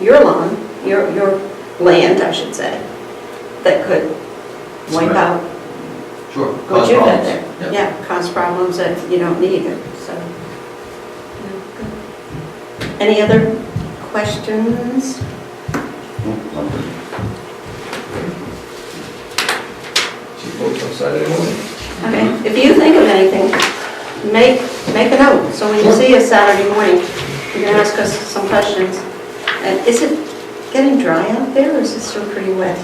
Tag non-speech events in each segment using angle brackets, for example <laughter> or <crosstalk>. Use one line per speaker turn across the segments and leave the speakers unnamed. your lawn, your, your land, I should say, that could wipe
Right.
out
Sure.
what
cause
you did
problems.
there.
Yep.
Yeah, cause problems that you don't need it, so. Any other questions?
She votes on Saturday morning.
Okay,
Mm-hmm.
if you think of anything, make, make a note, so when you see us Saturday morning, you can ask us some questions. And is it getting dry out there, or is it still pretty wet?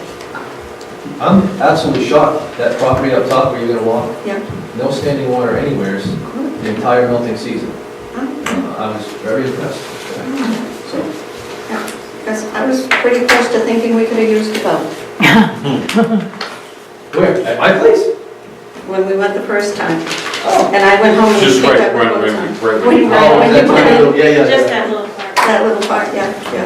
I'm absolutely shocked, that property up top where you're gonna walk,
Yeah.
no standing water anywheres
Good.
the entire melting season.
Oh,
Uh, I was very impressed. So,
Because I was pretty close to thinking we could have used the boat
Where, at my place?
when we went the first time.
Oh,
And I went home and
Just
picked
right-
up
right-
the boat.
right-
time.
right- right-
When you-
Oh,
when you
that's
went
right.
in,
Yeah, yeah,
Just
yeah.
that little part.
That little part, yeah, yeah.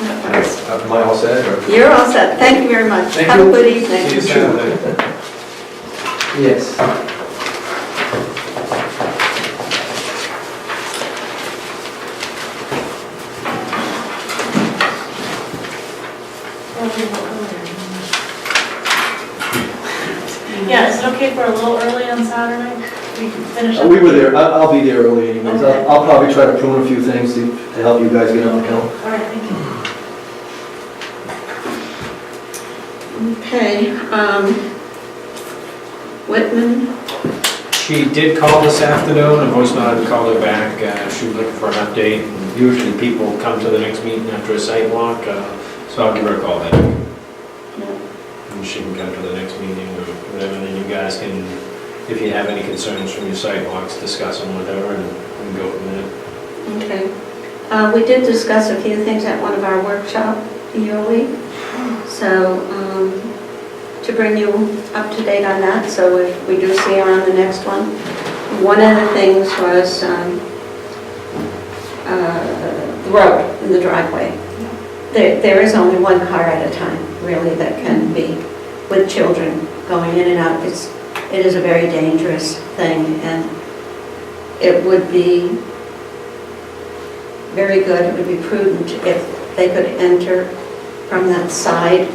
That was-
am I all set, or?
You're all set, thank you very much.
Thank
Have a
you.
good evening.
<laughs> Yes.
Yeah, is it okay for a little early on Saturday? We can finish
Uh,
up.
We were there, I- I'll be there early anyways, I'll I'll probably try to prune a few things to to help you guys get on the count.
All right, thank you.
Okay, um, Whitman,
She did call this afternoon, a voice note had called her back, Uh, she was looking for an update. Usually people come to the next meeting after a site walk, uh, so I'll give her a call then. And she can come to the next meeting or whatever, and then you guys can, if you have any concerns from your site walks, discuss them with her and we can go from there.
okay. Uh, We did discuss a few things at one of our workshop your week, so um, to bring you up to date on that, so if we do see her on the next one. One of the things was um, uh, the road in the driveway. There There is only one car at a time, really, that can be with children going in and out. It's It is a very dangerous thing, and it would be very good, it would be prudent if they could enter from that side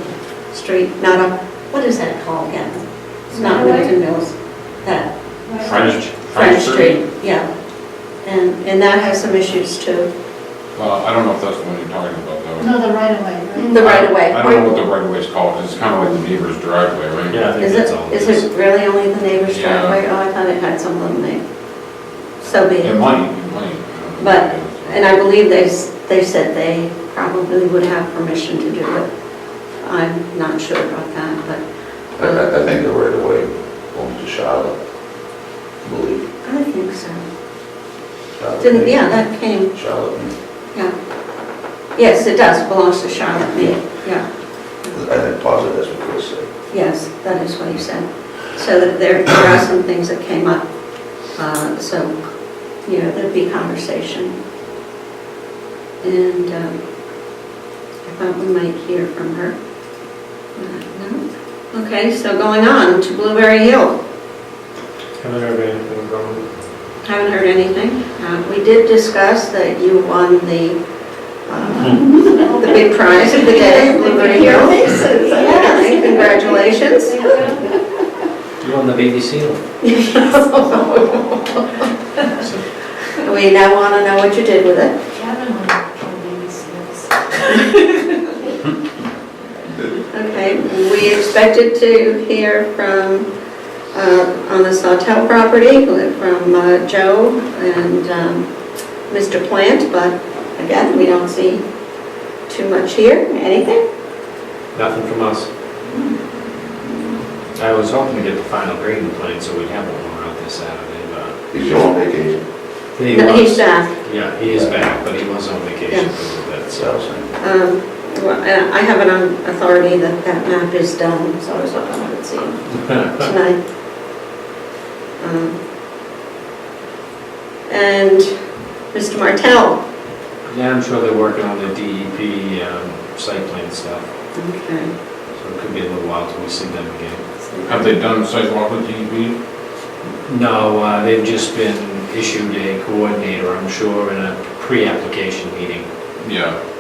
street, not up, what is that called again? It's not
Highway?
Milton Mills, that
French.
French Street, yeah. And, and that has some issues too.
Well, I don't know if that's the one you're talking about, though.
No, the right of way, right?
The right of way.
I don't know what the right of way is called, it's kind of like the neighbor's driveway, right?
Yeah, I think
Is
that's all.
it, is it really only the neighbor's
Yeah.
driveway? Oh, I thought it had some little name. So be
It
it.
might, it might. I don't know.
But, and I believe they, s- they said they probably would have permission to do it. I'm not sure about that, but.
I,
um,
I I think the right of way belongs to Charlotte, I believe.
um, I think so.
Charlotte
Didn't,
Mead.
yeah, that came,
Charlotte, Mead.
yeah. Yes, it does, belongs to Charlotte Mead, yeah.
I think positive that's what Chris said.
Yes, that is what he said. So that there, there are some things that came up, uh, so, you know, there'd be conversation. And um, I thought we might hear from her. Uh, no? Okay, so going on to Blueberry Hill.
Haven't heard anything from them.
Haven't heard anything. Uh, We did discuss that you won the, uh, the big prize of the day, Blueberry Hill. Yeah, congratulations.
You on the BBC?
<laughs>
list. So-
We now want to know what you did with it.
Gavin would probably be serious.
Okay, we expected to hear from, uh, on the Sawtelle property, from uh, Joe and um, Mr. Plant, but again, we don't see too much here, anything?
Nothing from us. I was hoping to get the final grading plan, so we'd have one out this Saturday, but
He's on vacation,
he
No, He's
was,
back.
yeah, he is back, but he was on vacation for a little bit,
that's what
so.
I was saying.
Um, well, I I have it on authority that that map is done, so I was hoping I would see it tonight. Um, And Mr. Martell,
Yeah, I'm sure they're working on the DEP um, site plan stuff,
Okay.
so it could be a little while till we see them again.
Have they done sidewalk with E DEP?
No, uh, they've just been issued a coordinator, I'm sure, in a pre-application meeting.
Yeah,